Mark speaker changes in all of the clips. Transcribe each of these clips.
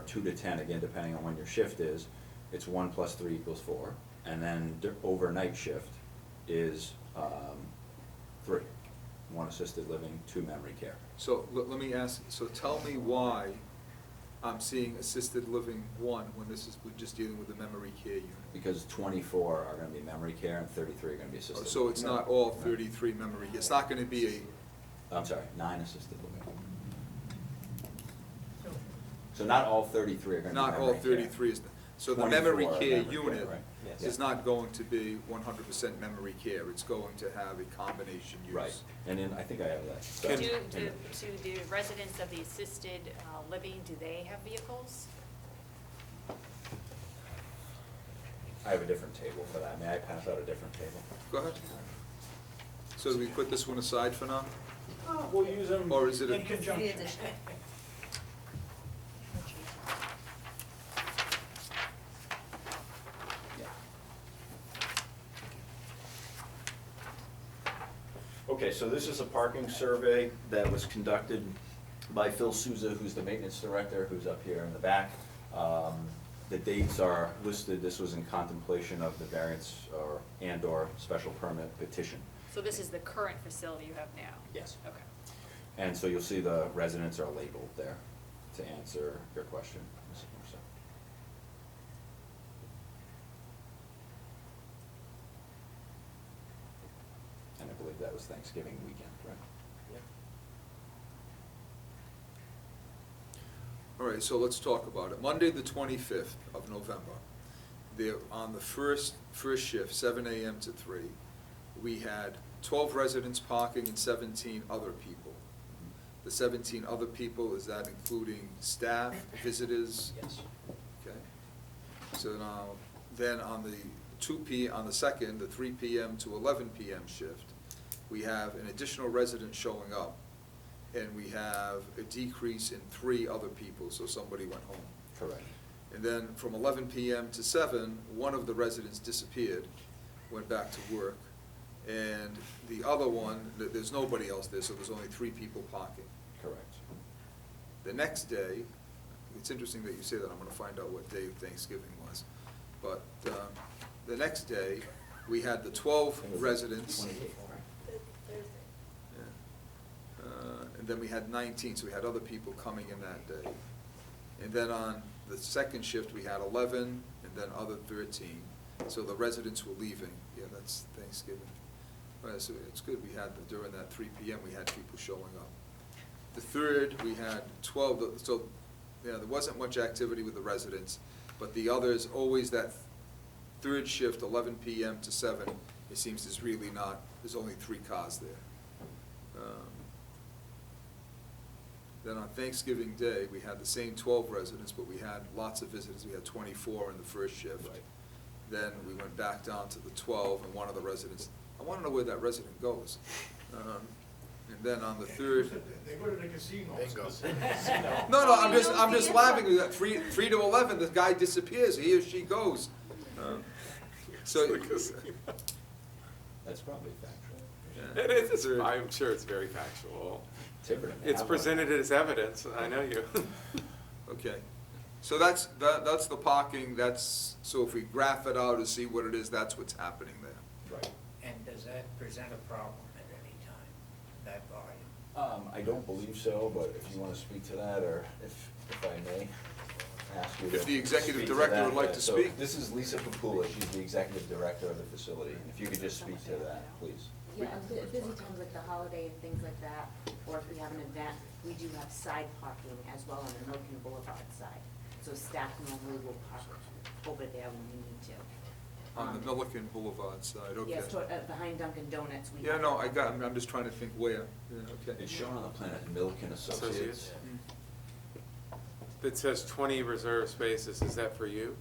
Speaker 1: two to ten, again, depending on when your shift is, it's one plus three equals four. And then the overnight shift is, um, three. One assisted living, two memory care.
Speaker 2: So let, let me ask, so tell me why I'm seeing assisted living one when this is, we're just dealing with the memory care unit.
Speaker 1: Because twenty-four are gonna be memory care and thirty-three are gonna be
Speaker 2: Oh,
Speaker 1: assisted.
Speaker 2: So it's
Speaker 1: living.
Speaker 2: not all
Speaker 1: No.
Speaker 2: thirty-three memory, it's not gonna be a,
Speaker 1: I'm sorry, nine assisted living.
Speaker 3: So,
Speaker 1: So not all thirty-three are gonna be memory
Speaker 2: not
Speaker 1: care.
Speaker 2: all thirty-three is, so the
Speaker 1: 24
Speaker 2: memory
Speaker 1: are
Speaker 2: care
Speaker 1: memory care,
Speaker 2: unit
Speaker 1: right. Yes.
Speaker 2: is
Speaker 1: Yeah.
Speaker 2: not going to be one hundred percent memory care, it's going to have a combination use.
Speaker 1: Right, and then I think I have that.
Speaker 2: Can-
Speaker 1: So-
Speaker 4: Do, do, do the residents of the assisted uh, living, do they have vehicles?
Speaker 1: I have a different table for that, may I pass out a different table?
Speaker 2: Go ahead. So do we put this one aside for now?
Speaker 5: Oh, We'll use them
Speaker 2: Or is it a-
Speaker 5: in conjunction.
Speaker 1: Okay, so this is a parking survey that was conducted by Phil Souza, who's the maintenance director, who's up here in the back. Um, The dates are listed, this was in contemplation of the variance or, and/or special permit petition.
Speaker 4: So this is the current facility you have now?
Speaker 1: Yes.
Speaker 4: Okay.
Speaker 1: And so you'll see the residents are labeled there to answer your question, Mrs. Musso. And I believe that was Thanksgiving weekend, right?
Speaker 2: All right, so let's talk about it. Monday, the twenty-fifth of November, there, on the first, first shift, seven AM to three, we had twelve residents parking and seventeen other people. The seventeen other people, is that including staff, visitors?
Speaker 1: Yes.
Speaker 2: Okay. So now, then on the two P, on the second, the three PM to eleven PM shift, we have an additional resident showing up, and we have a decrease in three other people, so somebody went home.
Speaker 1: Correct.
Speaker 2: And then from eleven PM to seven, one of the residents disappeared, went back to work, and the other one, th- there's nobody else there, so there's only three people parking.
Speaker 1: Correct.
Speaker 2: The next day, it's interesting that you say that, I'm gonna find out what day Thanksgiving was. But, um, the next day, we had the twelve residents. Yeah. Uh, And then we had nineteen, so we had other people coming in that day. And then on the second shift, we had eleven, and then other thirteen. So the residents were leaving, yeah, that's Thanksgiving. All right, so it's good, we had, the- during that three PM, we had people showing up. The third, we had twelve, so, yeah, there wasn't much activity with the residents, but the others, always that third shift, eleven PM to seven, it seems there's really not, there's only three cars there. Um, Then on Thanksgiving Day, we had the same twelve residents, but we had lots of visitors, we had twenty-four in the first shift.
Speaker 1: Right.
Speaker 2: Then we went back down to the twelve, and one of the residents, I wanna know where that resident goes. Um, And then on the third,
Speaker 5: They go to the casino.
Speaker 6: Bingo.
Speaker 2: no, no, I'm just,
Speaker 3: You don't
Speaker 2: I'm just
Speaker 3: see it?
Speaker 2: laughing, at that. three, three to eleven, the guy disappears, he or she goes. Um, So,
Speaker 1: That's probably factual.
Speaker 2: Yeah.
Speaker 7: It is, it's-
Speaker 2: Third.
Speaker 7: I'm sure it's very factual.
Speaker 1: Tiverton.
Speaker 7: It's presented as evidence, I know you.
Speaker 2: okay, so that's, that, that's the parking, that's, so if we graph it out and see what it is, that's what's happening there.
Speaker 1: Right.
Speaker 6: And does that present a problem at any time, that volume?
Speaker 1: Um, I don't believe so, but if you want to speak to that, or if, if I may, ask you to.
Speaker 2: If the executive
Speaker 1: speak to
Speaker 2: director
Speaker 1: that,
Speaker 2: would like
Speaker 1: uh,
Speaker 2: to
Speaker 1: so
Speaker 2: speak.
Speaker 1: This is Lisa Papula, she's the executive director of the facility, if you could just speak to that, please.
Speaker 8: Yeah, at bu- busy times like the holiday and things like that, or if we have an event, we do have side parking as well on the Milton Boulevard side. So staff normally will park over there when we need to.
Speaker 2: On the
Speaker 8: Um,
Speaker 2: Milliken Boulevard side, okay.
Speaker 8: Yes, toward, uh, behind Dunkin' Donuts, we.
Speaker 2: Yeah,
Speaker 8: have-
Speaker 2: no, I got, I'm, I'm just trying to think where, yeah, okay. Mm.
Speaker 1: It's shown on the plan as Milken Associates.
Speaker 7: Associates. That says twenty reserved spaces, is that for you?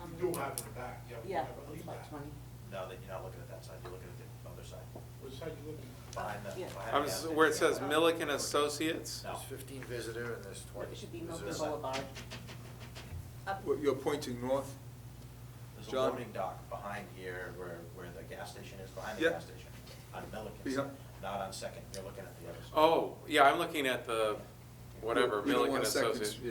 Speaker 8: Um,
Speaker 5: We do have it back, yeah. we
Speaker 8: Yeah,
Speaker 5: have at
Speaker 8: it's
Speaker 5: least
Speaker 8: about
Speaker 5: that.
Speaker 8: twenty.
Speaker 9: No, that you're not looking at that side, you're looking at the other side,
Speaker 5: What side you looking at?
Speaker 9: behind the,
Speaker 8: Yeah.
Speaker 9: behind the.
Speaker 7: I was,
Speaker 9: alley.
Speaker 7: where it says Milliken Associates?
Speaker 9: No.
Speaker 6: There's fifteen visitor and there's twenty.
Speaker 8: It should be Milton
Speaker 9: Missouri.
Speaker 8: Boulevard.
Speaker 4: Up-
Speaker 2: Well, You're pointing north?
Speaker 9: There's a
Speaker 2: John?
Speaker 9: loading dock behind here where, where the gas station is, behind the
Speaker 2: Yeah.
Speaker 9: gas station, on Milliken's,
Speaker 2: Yeah.
Speaker 9: not on Second, you're looking at the other side.
Speaker 7: Oh, yeah, I'm looking at the whatever,
Speaker 2: You don't
Speaker 7: Milliken
Speaker 2: want a second-
Speaker 7: Associates.